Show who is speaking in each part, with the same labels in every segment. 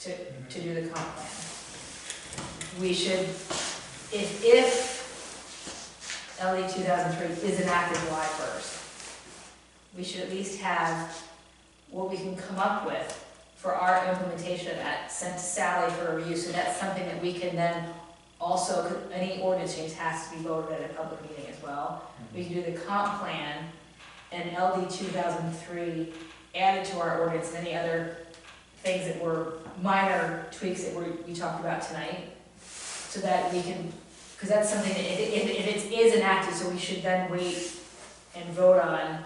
Speaker 1: to, to do the comp plan. We should, if, if LD two thousand three is enacted July first, we should at least have what we can come up with for our implementation of that sent to Sally for review, so that's something that we can then also, 'cause any ordinance change has to be voted at a public meeting as well. We can do the comp plan and LD two thousand three added to our ordinance and any other things that were minor tweaks that we, we talked about tonight. So that we can, because that's something that if, if, if it is enacted, so we should then wait and vote on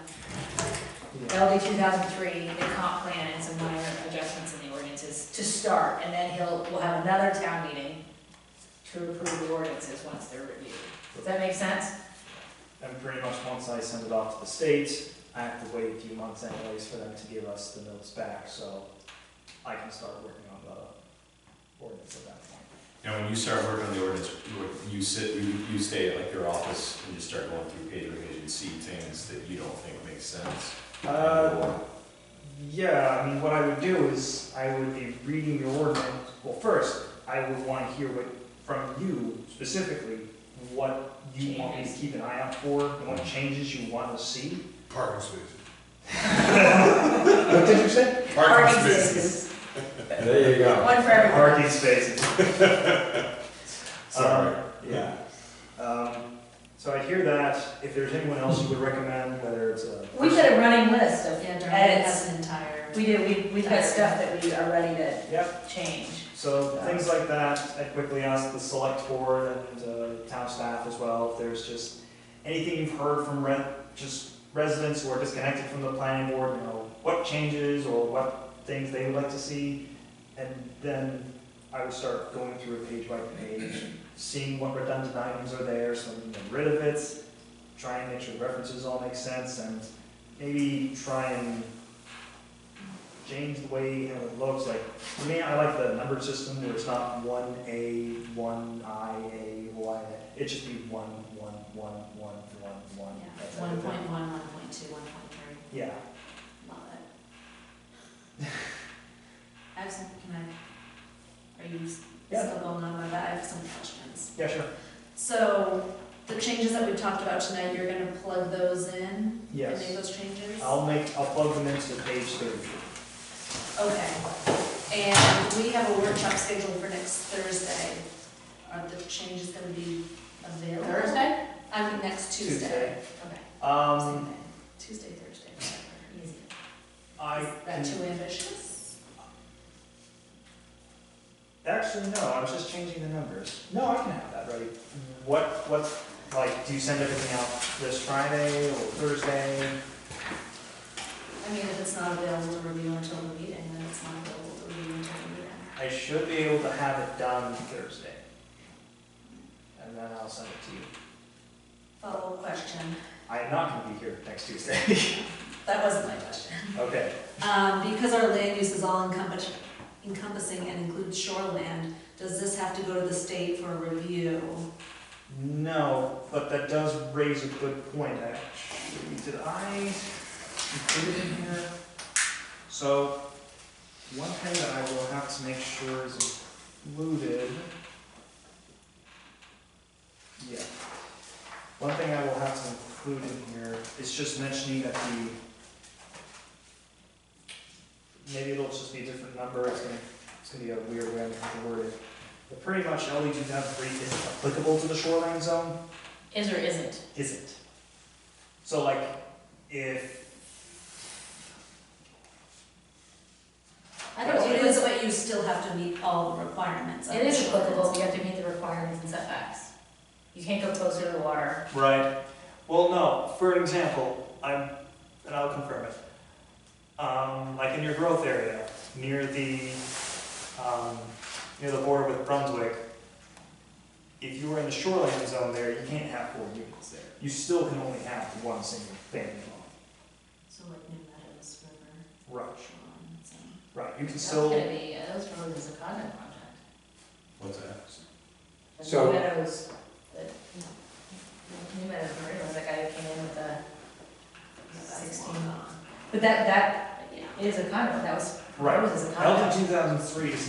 Speaker 1: LD two thousand three, the comp plan and some minor adjustments in the ordinances to start. And then he'll, we'll have another town meeting to approve the ordinances once they're reviewed. Does that make sense?
Speaker 2: And pretty much once I send it off to the state, I have to wait a few months anyways for them to give us the notes back, so I can start working on the ordinance at that point.
Speaker 3: Now, when you start working on the ordinance, you- you sit, you, you stay at like your office and just start going through page by page and see things that you don't think make sense.
Speaker 2: Uh, yeah, I mean, what I would do is, I would be reading your ordinance, well, first, I would wanna hear what, from you specifically, what you want me to
Speaker 1: Changes.
Speaker 2: keep an eye out for, and what changes you want to see.
Speaker 4: Parking spaces.
Speaker 2: What did you say?
Speaker 1: Parking spaces,
Speaker 4: There you go.
Speaker 1: one for everyone.
Speaker 2: Parking spaces.
Speaker 3: Sorry.
Speaker 2: Yeah. Um, so I hear that, if there's anyone else you would recommend, whether it's a.
Speaker 1: We've got a running list of
Speaker 5: Yeah, Darlene
Speaker 1: edits.
Speaker 5: has an entire.
Speaker 1: We do, we, we've got stuff that we are ready to
Speaker 2: Yep,
Speaker 1: change.
Speaker 2: so things like that, I quickly ask the select board and uh, town staff as well, if there's just anything you've heard from re, just residents who are disconnected from the planning board, you know, what changes or what things they would like to see. And then I would start going through it page by page, seeing what redundant items are there, so we can get rid of it, try and make sure references all make sense, and maybe try and change the way how it looks, like, for me, I like the numbered system where it's not one A, one I, A, Y, it should be one, one, one, one, one, one. That's
Speaker 5: One
Speaker 2: everything.
Speaker 5: point one, one point two, one point three,
Speaker 2: Yeah,
Speaker 5: love it. I have some, can I, are you s-
Speaker 2: Yeah.
Speaker 5: still going on with that? I have some questions.
Speaker 2: yeah, sure,
Speaker 5: So, the changes that we talked about tonight, you're gonna plug those in? And make
Speaker 2: yes,
Speaker 5: those changes?
Speaker 2: I'll make, I'll plug them into page thirty.
Speaker 5: Okay, and we have a workshop scheduled for next Thursday. Are the changes gonna be available?
Speaker 1: Thursday?
Speaker 5: I mean, next Tuesday. Okay.
Speaker 2: Um,
Speaker 5: Same day. Tuesday, Thursday, whatever. Easy.
Speaker 2: I
Speaker 5: Is
Speaker 2: can
Speaker 5: that too ambitious?
Speaker 2: Actually, no, I was just changing the numbers. No, I can have that ready. What, what, like, do you send everything out this Friday or Thursday?
Speaker 5: I mean, if it's not available to review until the meeting, then it's not available to review until the meeting.
Speaker 2: I should be able to have it done Thursday. And then I'll send it to you.
Speaker 5: Follow-up question,
Speaker 2: I am not gonna be here next Tuesday.
Speaker 5: that wasn't my question.
Speaker 2: Okay,
Speaker 5: Um, because our land use is all encompass- encompassing and includes shoreland, does this have to go to the state for a review?
Speaker 2: no, but that does raise a good point, actually. Did I include it in here? So, one thing that I will have to make sure is included. Yeah. One thing I will have to include in here is just mentioning that the, maybe it'll just be a different number, it's gonna, it's gonna be a weird way I'm gonna word it. But pretty much LD two thousand three isn't applicable to the shoreline zone,
Speaker 1: Is or isn't?
Speaker 2: isn't. So like, if.
Speaker 1: I don't,
Speaker 5: It
Speaker 1: it
Speaker 5: is,
Speaker 1: is,
Speaker 5: but you still have to meet all the requirements. of
Speaker 1: it is
Speaker 5: the shoreline.
Speaker 1: applicable, so you have to meet the requirements and setbacks. You can't go closer to the water.
Speaker 2: Right. Well, no, for an example, I'm, and I'll confirm it. Um, like in your growth area, near the, um, near the border with Brunswick, if you were in the shoreline zone there, you can't have four units there. You still can only have one single family home.
Speaker 5: So like New Meadows River,
Speaker 2: Right.
Speaker 5: shoreline, zone.
Speaker 2: Right, you can
Speaker 1: That's
Speaker 2: still.
Speaker 1: gonna be, uh, those roads is a condo project.
Speaker 3: What's that?
Speaker 1: The
Speaker 4: So-
Speaker 1: New Meadows, the, New Meadows Marina was that guy who came in with the sixteen. But that, that
Speaker 5: But yeah.
Speaker 1: is a condo, that was,
Speaker 2: Right.
Speaker 1: that was a condo.
Speaker 2: LD two thousand E three is